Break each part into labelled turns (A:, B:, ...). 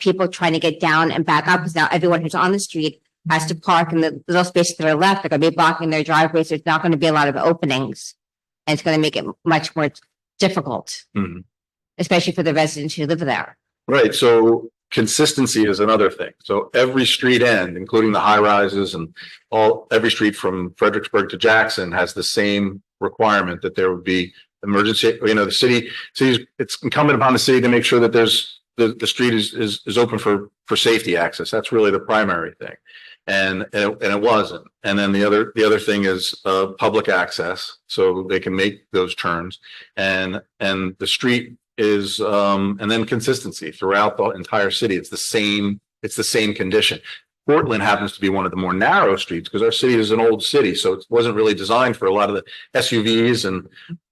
A: people trying to get down and back up, because now everyone who's on the street has to park in the little spaces that are left, they're gonna be blocking their driveways, there's not gonna be a lot of openings. And it's gonna make it much more difficult,
B: Mhm.
A: especially for the residents who live there.
B: Right, so consistency is another thing. So every street end, including the high rises and all, every street from Fredericksburg to Jackson has the same requirement that there would be emergency, you know, the city, cities, it's incumbent upon the city to make sure that there's, the, the street is, is, is open for, for safety access. That's really the primary thing. And, and it and it wasn't. And then the other, the other thing is, uh, public access, so they can make those turns. And, and the street is, um, and then consistency throughout the entire city. It's the same, it's the same condition. Portland happens to be one of the more narrow streets because our city is an old city, so it wasn't really designed for a lot of the SUVs and,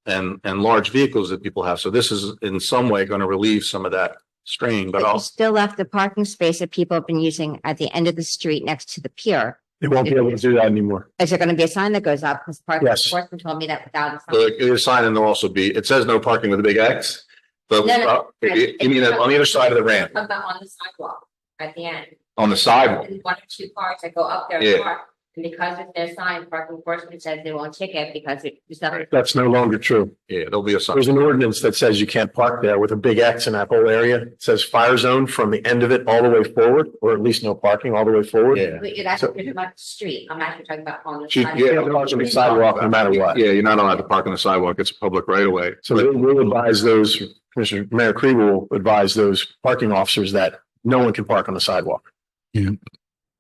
B: and, and large vehicles that people have. So this is in some way going to relieve some of that strain, but
A: But you
B: also.
A: still left the parking space that people have been using at the end of the street next to the pier.
B: They won't
A: be able to
B: do that anymore.
A: Is there gonna be a sign that goes up? Because parking
B: Yes.
A: enforcement told me that without. a sign-
B: The, the sign and there'll also be, it says no parking with a big X, but
A: No, no,
B: uh, you you mean on the other side of the ramp,
C: Talking about on the sidewalk at the end,
B: on the sidewalk.
C: and one or two cars that go up there
B: Yeah.
C: and park. And because of their sign, parking enforcement says they won't ticket because it's nothing.
D: That's no longer true.
B: Yeah, there'll be a sign.
D: There's an ordinance that says you can't park there with a big X in that whole area. It says fire zone from the end of it all the way forward, or at least no parking all the way forward.
B: Yeah.
C: But you're
D: So-
C: actually about the street, I'm actually talking about on the
B: She-
C: sidewalk.
B: yeah,
D: You can't park on the sidewalk no matter what.
B: Yeah, you're not allowed to park on the sidewalk. It's a public right of way.
D: So we'll- we'll advise those, Commissioner, Mayor Kribel will advise those parking officers that no one can park on the sidewalk.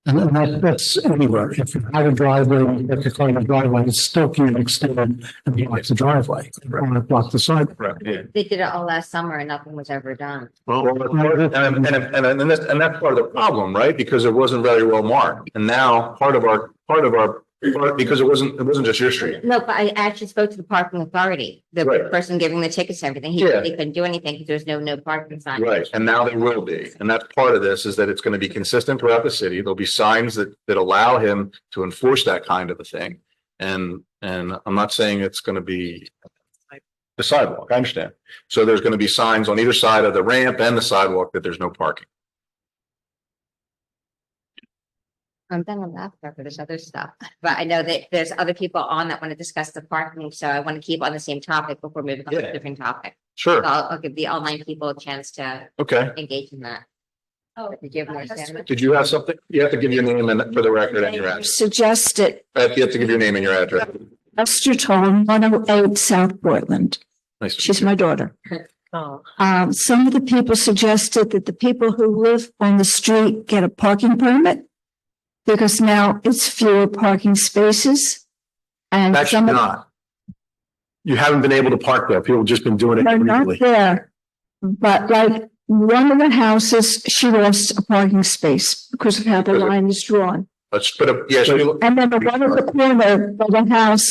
E: And and that, that's anywhere. If you have a driveway, if you claim a driveway, it still can extend and block the driveway or block the sidewalk.
B: Right, yeah.
A: They did it all last summer and nothing was ever done.
B: And, and, and, and that's, and that's part of the problem, right? Because it wasn't very well marked. And now part of our, part of our, part- because it wasn't, it wasn't just your street.
A: No, but I actually spoke to the parking authority, the
B: Right.
A: person giving the tickets and everything. He
B: Yeah.
A: said he couldn't do anything because there was no, no parking sign.
B: Right, and now there will be. And that's part of this is that it's going to be consistent throughout the city. There'll be signs that, that allow him to enforce that kind of a thing. And, and I'm not saying it's going to be the sidewalk, I understand. So there's going to be signs on either side of the ramp and the sidewalk that there's no parking.
A: I'm done on that, but there's other stuff. But I know that there's other people on that want to discuss the parking, so I want to keep on the same topic before moving on to a
B: Yeah.
A: different topic. So
B: Sure,
A: I'll, I'll give the online people a chance to
B: okay.
A: engage in that.
C: Oh,
A: Did you have more,
C: that's
A: Sandra?
B: Did you have something? You have to give your name and for the record and your address.
F: Suggest it,
B: Uh, You have to give your name and your address.
F: Esther Tolan, one oh eight South Portland.
B: Nice. to
F: She's my daughter.
C: Oh.
F: Um, some of the people suggested that the people who live on the street get a parking permit because now it's fewer parking spaces. And
D: That's
F: some of
D: not. You haven't been able to park there. People have just been doing
F: them
D: it
F: are not
D: illegally.
F: there. But like one of the houses, she lost a parking space because of how the line is drawn.
B: Let's put up, yeah, so
F: And then the one at the corner of the house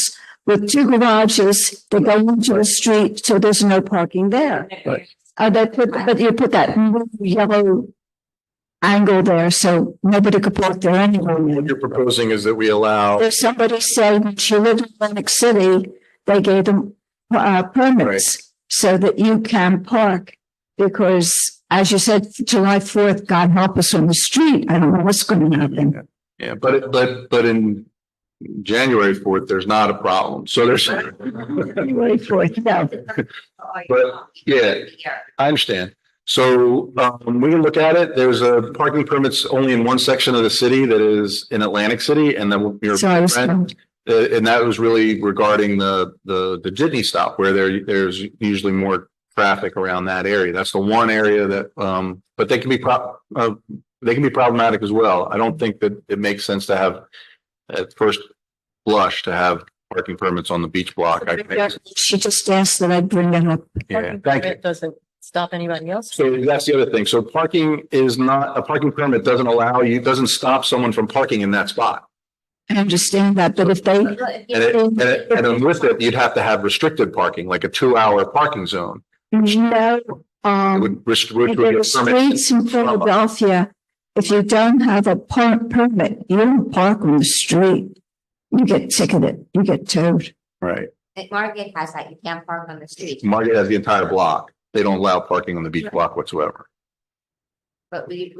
F: with two garages, they go into the street, so there's no parking there.
D: Right.
F: Uh, they put, but you put that yellow angle there, so nobody could park there
B: what
F: anyway.
B: you're proposing is that we allow,
F: There's somebody said when she lived in Atlantic City, they gave them, uh, permits so that you can park. Because as you said, July fourth, God help us on the street. I don't know what's going to happen.
B: yeah, but, it- but, but in January fourth, there's not a problem. So there's,
F: January fourth, no.
B: But, yeah. I understand. So um, we can look at it. There's a parking permits only in one section of the city that is in Atlantic City and then your
F: So I was.
B: friend- Uh, and that was really regarding the, the, the Jitney stop where there, there's usually more traffic around that area. That's the one area that, um, but they can be prob, uh, they can be problematic as well. I don't think that it makes sense to have at first blush to have parking permits on the beach block. I think,
F: She just asked that I bring it up.
B: yeah, thank you.
G: Doesn't stop anybody else.
B: So that's the other thing. So parking is not, a parking permit doesn't allow you, doesn't stop someone from parking in that spot.
F: I understand that, but if they,
B: And it, and it, and then with it, you'd have to have restricted parking, like a two-hour parking zone.
F: no,
B: It
F: um,
B: would rest- which would
F: if
B: be
F: there
B: a
F: are
B: permit.
F: streets in Philadelphia, if you don't have a par- permit, you don't park on the street. You get ticketed, you get towed.
B: Right.
A: Like, Margate has that, you can't park on the street.
B: Market has the entire block. They don't allow parking on the beach block whatsoever.
A: but we,